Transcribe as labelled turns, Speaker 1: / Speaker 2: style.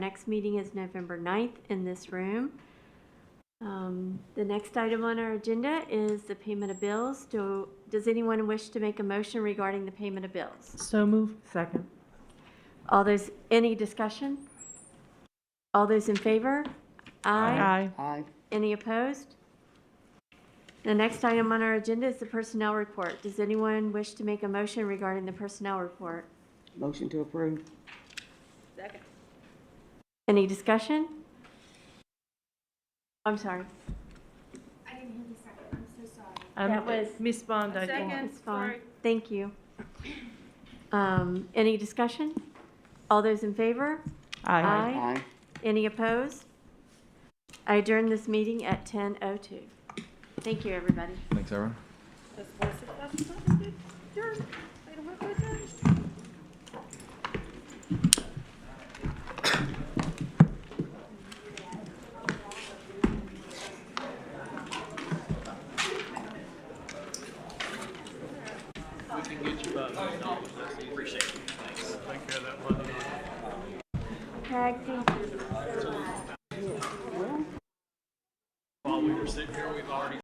Speaker 1: Next meeting is November 9th in this room. Um, The next item on our agenda is the payment of bills. Do, does anyone wish to make a motion regarding the payment of bills?
Speaker 2: So move. Second.
Speaker 1: All those, any discussion? All those in favor? Aye.
Speaker 2: Aye.
Speaker 3: Aye.
Speaker 1: Any opposed? The next item on our agenda is the personnel report. Does anyone wish to make a motion regarding the personnel report?
Speaker 3: Motion to approve.
Speaker 1: Any discussion? I'm sorry.
Speaker 4: I didn't hear the second, I'm so sorry.
Speaker 2: Um,
Speaker 1: That was-
Speaker 2: Ms. Bond, I think.
Speaker 1: It's fine. Thank you. Um, Any discussion? All those in favor? Aye. Any opposed? I adjourn this meeting at 10:02. Thank you, everybody.
Speaker 5: Thanks, everyone.
Speaker 1: Craig, thank you.
Speaker 6: While we were sitting here, we've already